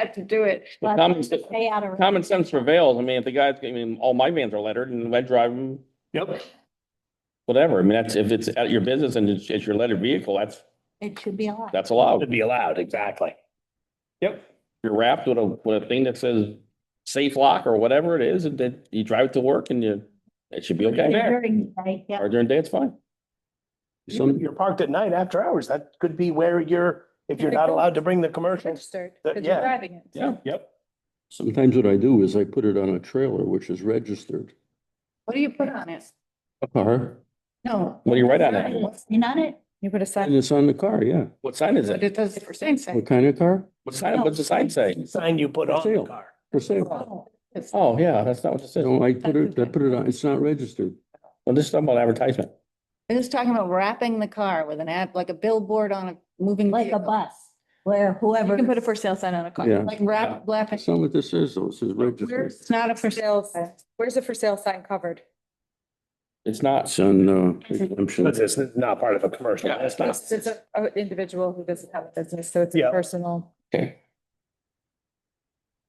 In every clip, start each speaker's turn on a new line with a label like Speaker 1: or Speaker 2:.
Speaker 1: had to do it.
Speaker 2: Well, common sense-
Speaker 3: Stay out of.
Speaker 2: Common sense prevails. I mean, if the guy's, I mean, all my vans are lettered and I drive them,
Speaker 4: Yep.
Speaker 2: whatever. I mean, that's, if it's at your business and it's, it's your lettered vehicle, that's,
Speaker 3: It should be allowed.
Speaker 2: that's allowed.
Speaker 4: Would be allowed, exactly. Yep.
Speaker 2: You're wrapped with a, with a thing that says safe lock or whatever it is, and then you drive to work and you, it should be okay.
Speaker 3: During the day, yeah.
Speaker 2: Or during the day, it's fine.
Speaker 4: Some-
Speaker 5: You- You're parked at night after hours. That could be where you're, if you're
Speaker 1: Could
Speaker 5: not
Speaker 1: go-
Speaker 5: allowed to bring the commercials.
Speaker 1: Registered,
Speaker 5: That-
Speaker 1: because you're
Speaker 5: yeah.
Speaker 1: driving it.
Speaker 2: Yeah.
Speaker 4: Yep.
Speaker 6: Sometimes what I do is I put it on a trailer, which is registered.
Speaker 1: What do you put on it?
Speaker 6: A car.
Speaker 3: No.
Speaker 2: What do you write on it?
Speaker 3: Not on it.
Speaker 1: You put a sign,
Speaker 6: And it's on the car, yeah.
Speaker 2: What sign is
Speaker 1: but
Speaker 2: it?
Speaker 1: it does for same
Speaker 6: What
Speaker 1: sex.
Speaker 6: kind of car?
Speaker 2: What sign, what's the sign say?
Speaker 5: Sign you put on the
Speaker 6: Sale.
Speaker 5: car.
Speaker 6: For sale.
Speaker 2: Oh, yeah, that's not what it says.
Speaker 6: No, I put it, I put it on, it's not registered.
Speaker 2: Well, this is talking about advertisement.
Speaker 1: I was talking about wrapping the car with an ad, like a billboard on a moving.
Speaker 3: Like a
Speaker 1: vehicle.
Speaker 3: bus where whoever.
Speaker 1: You can put a for sale sign on a car,
Speaker 6: Yeah.
Speaker 1: like wrap, wrap it.
Speaker 6: That's not what this is, though. It says registered.
Speaker 1: It's not a for sale. sign.
Speaker 7: Where's the for sale sign covered?
Speaker 2: It's not,
Speaker 6: It's on, uh, exemption.
Speaker 4: But this is not part of a commercial.
Speaker 2: Yeah.
Speaker 4: That's not.
Speaker 7: It's an individual who doesn't have a business, so it's
Speaker 4: Yeah.
Speaker 7: a personal.
Speaker 2: okay.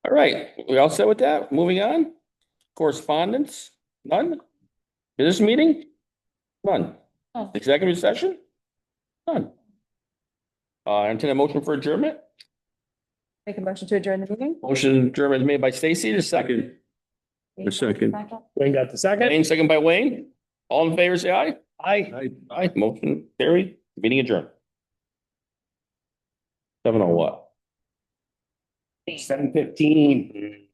Speaker 2: All right, we all set with that? Moving on? Correspondence? None? Business meeting? None.
Speaker 3: Oh.
Speaker 2: Executive session? None. Uh, entertain a motion for adjournment?
Speaker 7: Make a motion to adjourn the meeting?
Speaker 2: Motion adjournment made by Stacy, the second.
Speaker 6: A second.
Speaker 4: Wayne got the second.
Speaker 2: Wayne, second by Wayne. All in favor, say aye.
Speaker 4: Aye.
Speaker 2: Aye, motion carried, meeting adjourned. Seven oh what?
Speaker 4: Seven fifteen.